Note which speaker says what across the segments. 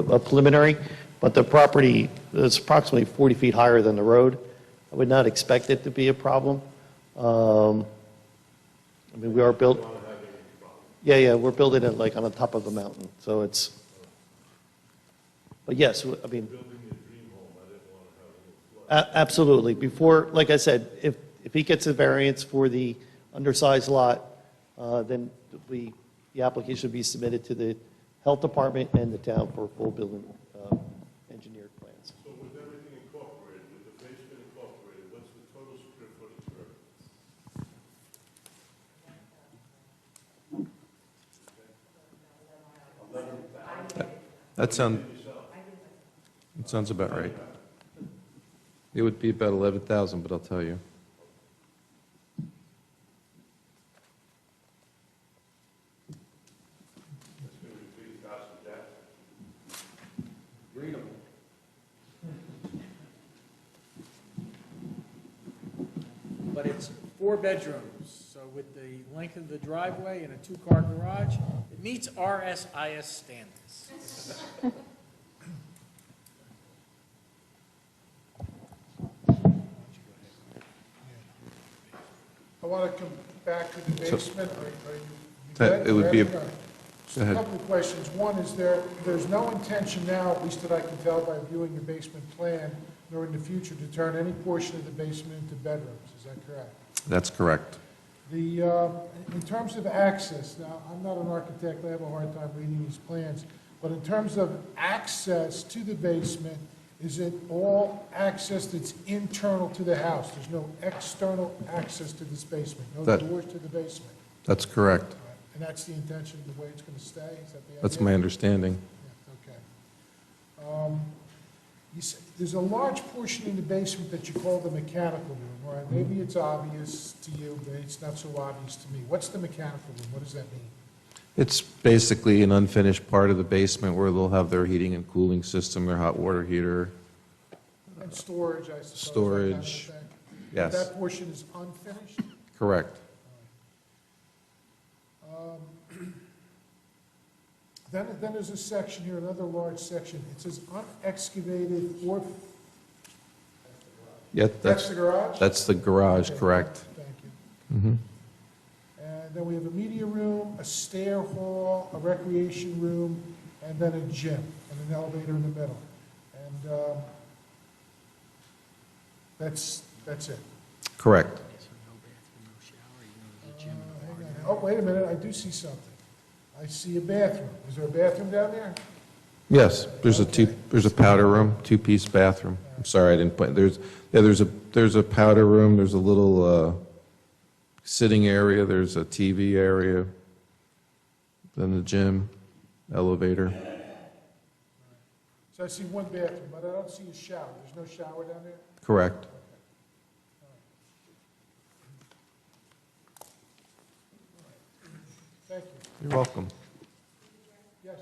Speaker 1: a preliminary, but the property is approximately 40 feet higher than the road. I would not expect it to be a problem. Um, I mean, we are built. Yeah, yeah, we're building it like on the top of a mountain, so it's, but yes, I mean. A- Absolutely. Before, like I said, if, if he gets a variance for the undersized lot, uh, then we, the application would be submitted to the health department and the town for full building uh, engineered plans.
Speaker 2: So with everything incorporated, with the basement incorporated, what's the total square footage for it?
Speaker 3: That sound, that sounds about right. It would be about 11,000, but I'll tell you.
Speaker 4: But it's four bedrooms, so with the length of the driveway and a two-car garage, it meets RSIS standards.
Speaker 5: I want to come back to the
Speaker 3: So-
Speaker 5: basement. Are- are you- you
Speaker 3: That-
Speaker 5: good?
Speaker 3: it would be a-
Speaker 5: Ready? Just
Speaker 3: Go
Speaker 5: a
Speaker 3: ahead.
Speaker 5: couple of questions. One, is there, there's no intention now, at least that I can tell by viewing the basement plan, nor in the future, to turn any portion of the basement into bedrooms, is that correct?
Speaker 3: That's correct.
Speaker 5: The, uh, in terms of access, now, I'm not an architect, I have a hard time reading these plans, but in terms of access to the basement, is it all access that's internal to the house? There's no external access to this basement, no
Speaker 3: That-
Speaker 5: doors to the basement?
Speaker 3: That's correct.
Speaker 5: And that's the intention, the way it's going to stay? Is that the idea?
Speaker 3: That's my understanding.
Speaker 5: Yeah, Okay. Um, You s there's a large portion in the basement that you call the mechanical room, All right, Maybe it's obvious to you, but it's not so obvious to me. What's the mechanical room? What does that mean?
Speaker 3: It's basically an unfinished part of the basement where they'll have their heating and cooling system, their hot water heater.
Speaker 5: And storage, I suppose? that kind of
Speaker 3: Storage,
Speaker 5: thing.
Speaker 3: yes.
Speaker 5: That portion is unfinished?
Speaker 3: Correct.
Speaker 5: Then, then there's a section here, another large section. It says unexcavated or,
Speaker 3: Yeah,
Speaker 5: that's
Speaker 3: that's,
Speaker 5: the garage?
Speaker 3: that's the garage,
Speaker 5: Okay,
Speaker 3: correct.
Speaker 5: Thank you. And then we have a media room, a stair hall, a recreation room, and then a gym, and an elevator in the middle. And um, that's, that's it.
Speaker 3: Correct.
Speaker 5: Uh, hang on. Oh, wait a minute, I do see something. I see a bathroom. Is there a bathroom down there?
Speaker 3: Yes, there's a two, there's a powder room, two-piece bathroom. I'm sorry, I didn't point, there's, yeah, there's a, there's a powder room, there's a little uh, sitting area, there's a TV area, then the gym, elevator.
Speaker 5: So I see one bathroom, but I don't see a shower. There's no shower down there?
Speaker 3: Correct.
Speaker 5: Thank you.
Speaker 3: You're welcome.
Speaker 5: Yes?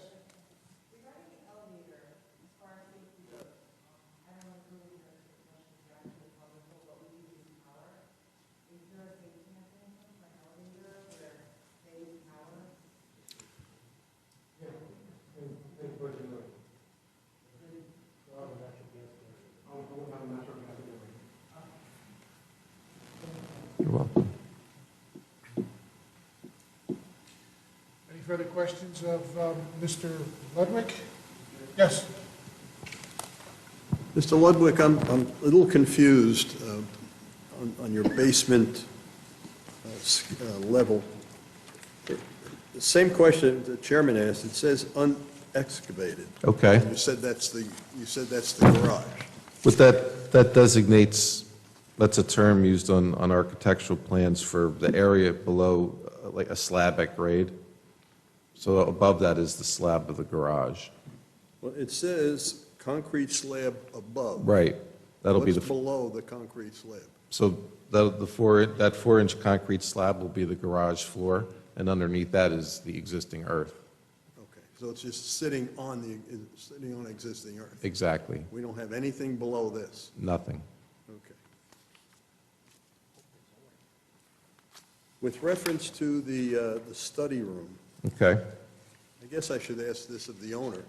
Speaker 3: You're welcome.
Speaker 5: Any further questions of um, Mr. Ludwig? Yes?
Speaker 6: Mr. Ludwig, I'm, I'm a little confused uh, on, on your basement uh, s- uh, level. The same question the chairman asked, it says unexcavated.
Speaker 3: Okay.
Speaker 6: And You said that's the, you said that's the garage.
Speaker 3: But that, that designates, that's a term used on, on architectural plans for the area below, uh, like a slab at grade. So above that is the slab of the garage.
Speaker 6: Well, it says concrete slab above.
Speaker 3: Right. That'll be
Speaker 6: What's
Speaker 3: the,
Speaker 6: below the concrete slab?
Speaker 3: so that, the four, that four-inch concrete slab will be the garage floor, and underneath that is the existing earth.
Speaker 6: Okay, so it's just sitting on the, is- sitting on existing earth.
Speaker 3: Exactly.
Speaker 6: We don't have anything below this.
Speaker 3: Nothing.
Speaker 6: Okay. With reference to the, uh, the study room,
Speaker 3: Okay.
Speaker 6: I guess I should ask this of the owner.